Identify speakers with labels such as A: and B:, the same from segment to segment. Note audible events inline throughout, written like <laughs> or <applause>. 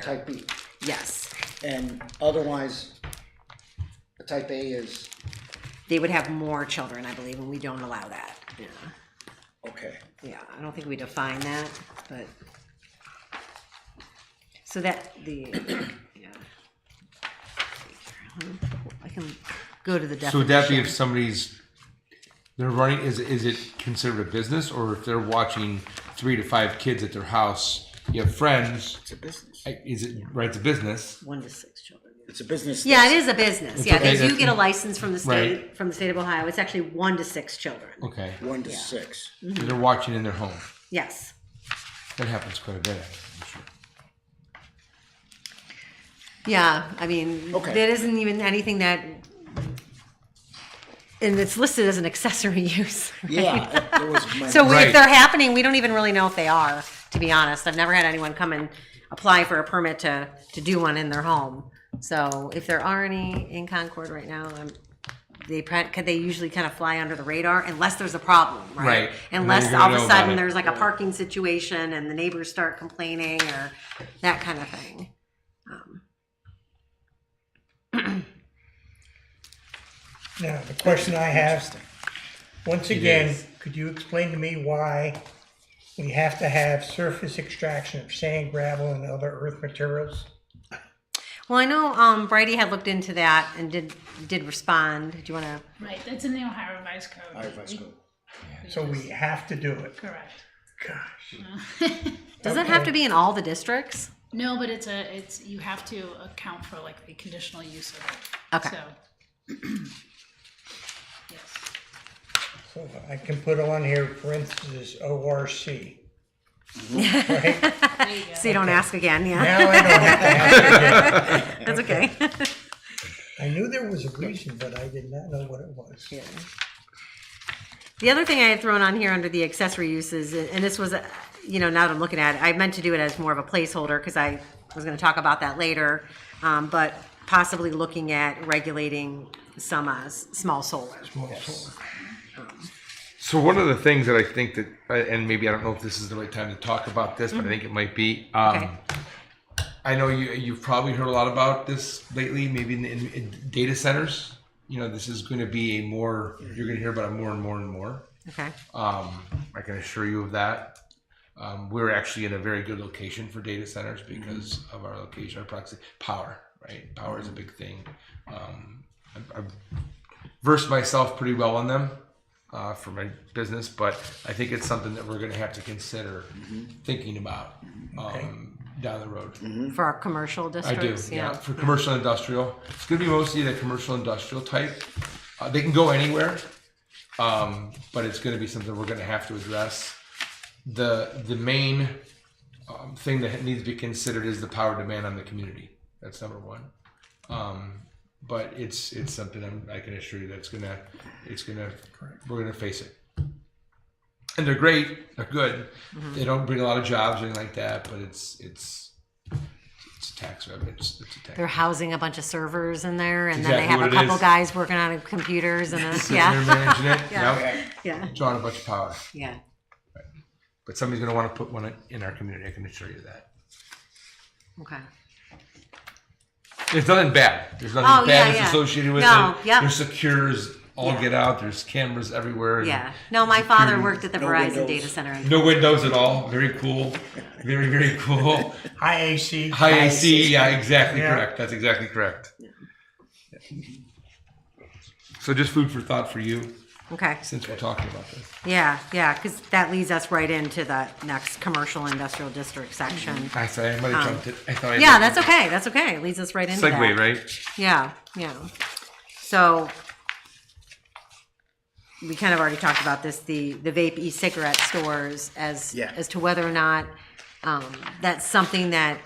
A: type B.
B: Yes,
A: And otherwise, the type A is,
B: they would have more children, I believe, and we don't allow that. Yeah,
A: okay,
B: yeah. I don't think we define that, but so that the <clears throat> yeah. I can go to the definition.
C: So would that be if somebody's they're running is is it considered a business or if they're watching three to five kids at their house? You have friends.
A: it's a business.
C: I- Is it right? It's a business.
B: one to six children?
A: It's a business.
B: Yeah, it is a business. Yeah, they
C: okay,
B: do
C: that's-
B: get a license from the state
C: Right.
B: from the state of Ohio. It's actually one to six children.
C: Okay,
A: that's One to
B: <laughs>
A: six.
C: So they're watching in their home.
B: Yes.
C: That happens quite a bit. I'm sure.
B: Yeah, I mean,
A: Okay.
B: there isn't even anything that, and it's listed as an accessory <laughs> use. right?
A: Yeah, there was my.
B: So we, if
C: Right.
B: they're happening, we don't even really know if they are. To be honest, I've never had anyone come and apply for a permit to to do one in their home. So if there are any in Concord right now, um, they pre- could they usually kind of fly under the radar unless there's a problem, right?
C: Right. And then
B: Unless
C: you're gonna
B: all of
C: know
B: a
C: about
B: sudden
C: it.
B: there's like a parking situation and the neighbors start complaining or that kind of thing.
D: Now, the question I have, once again, could you explain to me why we have to have surface extraction of sand, gravel, and other earth materials?
B: Well, I know um, Brady had looked into that and did did respond. Do you want to?
E: Right, that's in the Ohio Revised Code.
A: All right, let's go.
D: So we have to do it.
E: Correct.
D: Gosh.
B: Does it have to be in all the districts?
E: No, but it's a, it's, you have to account for like the conditional use of it.
B: Okay.
E: So. <clears throat> Yes,
D: So I can put on here parentheses ORC. Right?
E: there you go.
B: So you don't ask again. Yeah,
D: Now I don't have to ask again.
B: that's
C: <laughs>
B: okay.
D: I knew there was a reason, but I did not know what it was.
B: the other thing I had thrown on here under the accessory uses, and this was, uh, you know, now that I'm looking at it, I meant to do it as more of a placeholder because I was going to talk about that later, um, but possibly looking at regulating some uh, s- small solar.
C: So one of the things that I think that, uh, and maybe I don't know if this is the right time to talk about this, but I think it might be. Um,
B: Okay.
C: I know you you've probably heard a lot about this lately, maybe in, in, in data centers. You know, this is going to be a more you're going to hear about it more and more and more.
B: Okay.
C: Um, I can assure you of that. Um, we're actually in a very good location for data centers because of our location, our proxy power. Right, power is a big thing. Um, I- I've versed myself pretty well on them uh, for my business, but I think it's something that we're going to have to consider thinking about um, down the road.
B: For our commercial
C: I do,
B: districts.
C: yeah. For commercial industrial, it's gonna be mostly the commercial industrial type. Uh, they can go anywhere, um, but it's gonna be something we're gonna have to address. The the main um, thing that needs to be considered is the power demand on the community. That's number one. Um, but it's it's something I'm, I can assure you that's gonna it's gonna we're gonna face it. And they're great, they're good.
B: Mm-hmm.
C: They don't bring a lot of jobs or anything like that, but it's it's it's a tax revenue. It's, it's a tax.
B: they're housing a bunch of servers in there, and then
C: Exactly
B: they have
C: what
B: a
C: it
B: couple
C: is.
B: guys working on computers, and then,
C: Sitting there
B: yeah,
C: managing it.
B: <laughs> Yeah.
C: Yep.
B: yeah,
C: Drawing a bunch of power.
B: yeah.
C: But somebody's going to want to put one in our community. I can assure you that.
B: Okay.
C: There's nothing bad. There's nothing
B: Oh,
C: bad
B: yeah,
C: that's
B: yeah.
C: associated with
B: No,
C: it.
B: yep.
C: They're secure as all
B: Yeah.
C: get out. There's cameras everywhere. and
B: Yeah. No, my father
C: security-
B: worked at the
A: No
B: Verizon
A: windows.
B: data center. in-
C: No windows at all. Very cool. Very, very cool.
D: High AC.
C: High AC.
A: AC.
C: Yeah, exactly
D: Yeah.
C: correct. That's exactly correct. So just food for thought for you
B: Okay.
C: since we're talking about this.
B: Yeah, yeah, because that leads us right into the next commercial industrial district section.
C: I sorry, I might have jumped it. I thought I
B: Um, Yeah,
C: did.
B: that's okay. That's okay. It leads us right into
C: segue,
B: that.
C: right?
B: Yeah, yeah. So we kind of already talked about this, the, the vape e-cigarette stores as,
A: Yeah.
B: as to whether or not, um, that's something that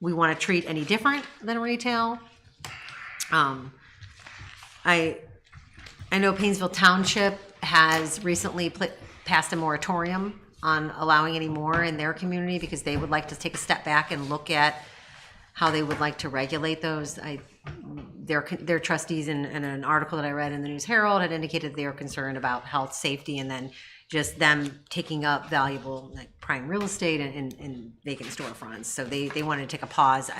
B: we want to treat any different than retail. Um, I, I know Painesville Township has recently pla- passed a moratorium on allowing any more in their community because they would like to take a step back and look at how they would like to regulate those. I, their, their trustees in, in an article that I read in the News Herald had indicated they were concerned about health, safety, and then just them taking up valuable like prime real estate and, and, and vacant storefronts. So they, they wanted to take a pause.